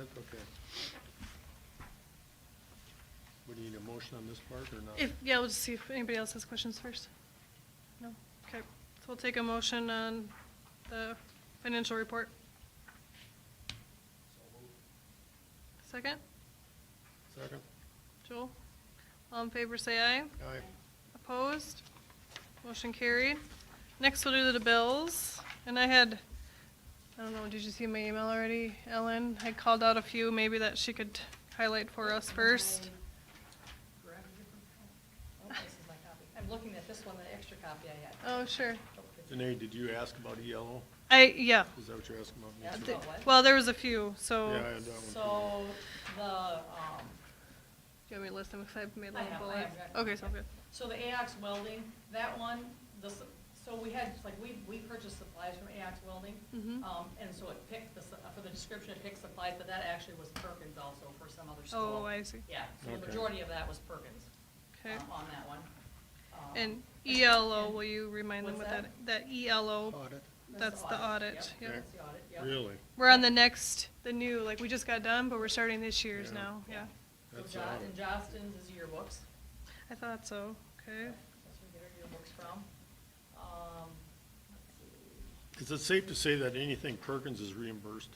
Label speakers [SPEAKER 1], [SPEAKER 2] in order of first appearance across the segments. [SPEAKER 1] Okay. Would you need a motion on this part or not?
[SPEAKER 2] If, yeah, we'll just see if anybody else has questions first. No? Okay, so we'll take a motion on the financial report. Second?
[SPEAKER 1] Second?
[SPEAKER 2] Joel? All in favor, say aye.
[SPEAKER 1] Aye.
[SPEAKER 2] Opposed? Motion carried. Next, we'll do the bills, and I had, I don't know, did you see my email already, Ellen? I called out a few, maybe that she could highlight for us
[SPEAKER 3] Um,
[SPEAKER 2] first.
[SPEAKER 3] Grab a different copy. Oh, this is my copy. I'm looking at this one, the extra copy I had.
[SPEAKER 2] Oh, sure.
[SPEAKER 1] Danae, did you ask about ELO?
[SPEAKER 2] I, yeah.
[SPEAKER 1] Is that what you're asking about? Me
[SPEAKER 3] Asked
[SPEAKER 1] too?
[SPEAKER 3] about what?
[SPEAKER 2] Well, there was a few, so.
[SPEAKER 1] Yeah, I had that one. too.
[SPEAKER 3] So, the, um,
[SPEAKER 2] Do you want me to list them, because I've made
[SPEAKER 3] I
[SPEAKER 2] like
[SPEAKER 3] have, I
[SPEAKER 2] bullets?
[SPEAKER 3] have got-
[SPEAKER 2] Okay, so good.
[SPEAKER 3] so the AOX welding, that one, the, s- so we had, like, we, we purchased supplies from AOX welding.
[SPEAKER 2] Mhm.
[SPEAKER 3] Um, and so it picked the, s- for the description, it picked supplies, but that actually was Perkins also for some other school.
[SPEAKER 2] Oh, I see.
[SPEAKER 3] Yeah, so the
[SPEAKER 1] Okay.
[SPEAKER 3] majority of that was Perkins. uh,
[SPEAKER 2] Okay.
[SPEAKER 3] On that one. Um,
[SPEAKER 2] And ELO,
[SPEAKER 3] and-
[SPEAKER 2] will you remind them what
[SPEAKER 3] What's
[SPEAKER 2] that, that E ELO,
[SPEAKER 1] Audit?
[SPEAKER 2] that's the audit,
[SPEAKER 3] Yep,
[SPEAKER 2] yeah.
[SPEAKER 3] that's the audit, yep.
[SPEAKER 1] Really?
[SPEAKER 2] We're on the next, the new, like, we just got done, but we're starting this year's
[SPEAKER 1] Yeah.
[SPEAKER 2] now, yeah.
[SPEAKER 3] So
[SPEAKER 1] That's
[SPEAKER 3] Jo-
[SPEAKER 1] odd.
[SPEAKER 3] And Johnston's is yearbooks.
[SPEAKER 2] I thought so, okay.
[SPEAKER 3] That's where we get our yearbooks from. Um, let's see.
[SPEAKER 1] Is it safe to say that anything Perkins is reimbursed,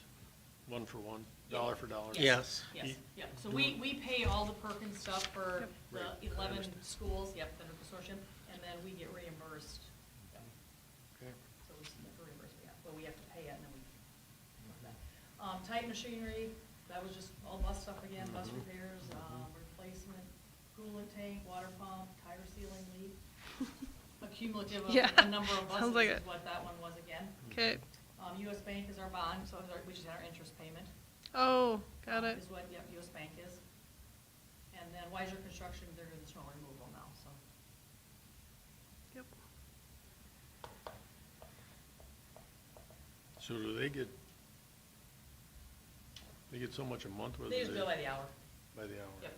[SPEAKER 1] one for one, dollar for dollar? E-
[SPEAKER 4] Yes.
[SPEAKER 3] Yes,
[SPEAKER 1] Ye-
[SPEAKER 3] yep, so we, we pay all the Perkins stuff for
[SPEAKER 2] Yep.
[SPEAKER 1] Right, I
[SPEAKER 3] the eleven
[SPEAKER 1] understand.
[SPEAKER 3] schools, yep, under consortium, and then we get reimbursed. Yep.
[SPEAKER 1] Okay.
[SPEAKER 3] So we submit the reimbursement, yeah, but we have to pay it and then we. Um, Titan Machinery, that was just all bus stuff again, bus
[SPEAKER 1] Mhm.
[SPEAKER 3] repairs, um, replacement, coolant tank, water pump, tire sealing leak. Accumulative of
[SPEAKER 2] Yeah,
[SPEAKER 3] the number of
[SPEAKER 2] sounds like
[SPEAKER 3] buses
[SPEAKER 2] it.
[SPEAKER 3] is what that one was again.
[SPEAKER 2] Okay,
[SPEAKER 3] Um, US Bank is our bond, so is our- we just had our interest payment.
[SPEAKER 2] oh, got
[SPEAKER 3] um,
[SPEAKER 2] it.
[SPEAKER 3] Is what, yep, US Bank is. And then Wiser Construction, they're doing the snow removal now, so.
[SPEAKER 2] Yep.
[SPEAKER 1] So do they get, they get so much a month? or do
[SPEAKER 3] They just bill by the hour.
[SPEAKER 1] By the hour?
[SPEAKER 3] Yep,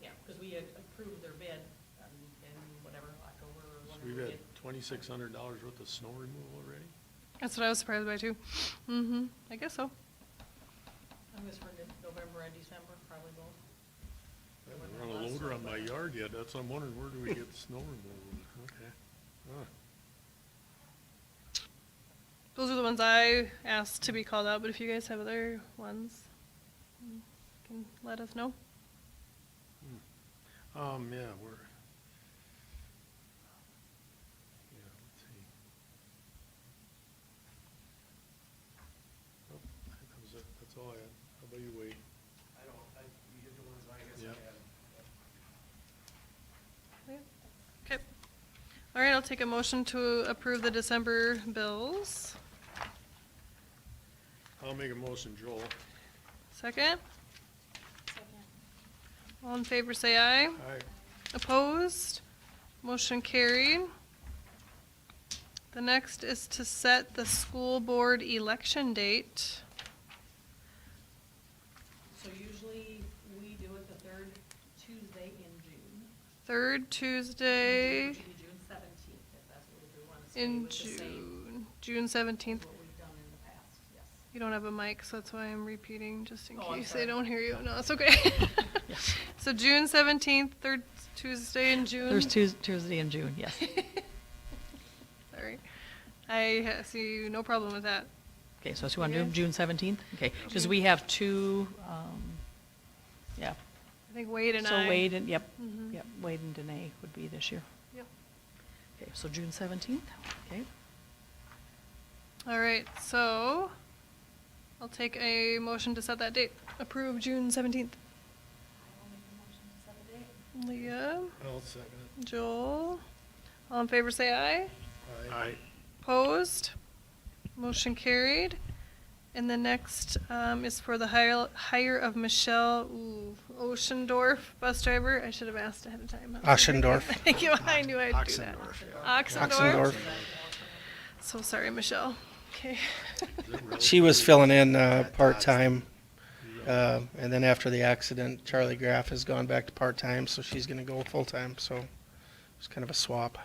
[SPEAKER 3] yeah, because we had approved their bid um, in whatever, October or
[SPEAKER 1] So
[SPEAKER 3] whatever.
[SPEAKER 1] we've
[SPEAKER 3] we
[SPEAKER 1] had
[SPEAKER 3] did.
[SPEAKER 1] twenty-six hundred dollars worth of snow removal already?
[SPEAKER 2] That's what I was surprised by too. Mm-hmm, I guess so.
[SPEAKER 3] I guess for November and December, probably both.
[SPEAKER 1] I haven't run a loader on my yard yet, that's, I'm wondering, where do we get the snow removal? Okay. Huh.
[SPEAKER 2] Those are the ones I asked to be called out, but if you guys have other ones, you can let us know.
[SPEAKER 1] Hmm. Um, yeah, we're. Yeah, let's see. Nope, That was Oh, it, that's all I had. How about you, Wade?
[SPEAKER 5] I don't, I, you did the ones I guess
[SPEAKER 1] Yeah.
[SPEAKER 5] I had.
[SPEAKER 2] Okay. All right, I'll take a motion to approve the December bills.
[SPEAKER 1] I'll make a motion, Joel.
[SPEAKER 2] Second? All in favor, say aye.
[SPEAKER 1] Aye.
[SPEAKER 2] Opposed? Motion carried. The next is to set the school board election date.
[SPEAKER 3] So usually, we do it the third Tuesday in June.
[SPEAKER 2] Third Tuesday
[SPEAKER 3] Which would be June seventeenth, if that's what we do, want to stay
[SPEAKER 2] in
[SPEAKER 3] with the same
[SPEAKER 2] June, June
[SPEAKER 3] as
[SPEAKER 2] seventeenth.
[SPEAKER 3] what we've done in the past, yes.
[SPEAKER 2] You don't have a mic, so that's why I'm repeating, just in
[SPEAKER 3] Oh, I'm
[SPEAKER 2] case they
[SPEAKER 3] sorry.
[SPEAKER 2] don't hear you. No, it's okay. So June seventeenth, third Tuesday in June.
[SPEAKER 6] There's Tues- Tuesday in June, yes.
[SPEAKER 2] Sorry. I ha- see no problem with that.
[SPEAKER 6] Okay, so you want to do
[SPEAKER 2] Okay.
[SPEAKER 6] June 17th? Okay, because
[SPEAKER 2] Okay.
[SPEAKER 6] we have two, um, yeah.
[SPEAKER 2] I think Wade and I.
[SPEAKER 6] So Wade and, yep,
[SPEAKER 2] Mhm.
[SPEAKER 6] yep, Wade and Danae would be this year.
[SPEAKER 2] Yep.
[SPEAKER 6] Okay, so June 17th, okay.
[SPEAKER 2] All right, so I'll take a motion to set that date. Approve June seventeenth. Leah,
[SPEAKER 1] I'll second it.
[SPEAKER 2] Joel, all in favor say aye.
[SPEAKER 1] Aye.
[SPEAKER 2] Opposed? Motion carried. And the next um, is for the hire, hire of Michelle ooh, Oschendorf, bus driver. I should have asked ahead of time.
[SPEAKER 4] Oschendorf.
[SPEAKER 2] Thank you, I knew I'd do that. Oxendorf?
[SPEAKER 4] Oxendorf.
[SPEAKER 2] So sorry, Michelle. Okay.
[SPEAKER 1] Is it really?
[SPEAKER 4] She was filling in uh, part-time, uh, and then after the accident, Charlie Graff has gone back to part-time, so she's going to go full-time, so it's kind of a swap.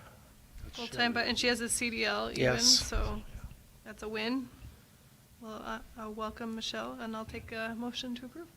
[SPEAKER 1] That's
[SPEAKER 2] Full-time, but, and she has a CDL even,
[SPEAKER 4] Yes.
[SPEAKER 2] so that's a win. Well, uh, uh, welcome, Michelle, and I'll take a motion to approve.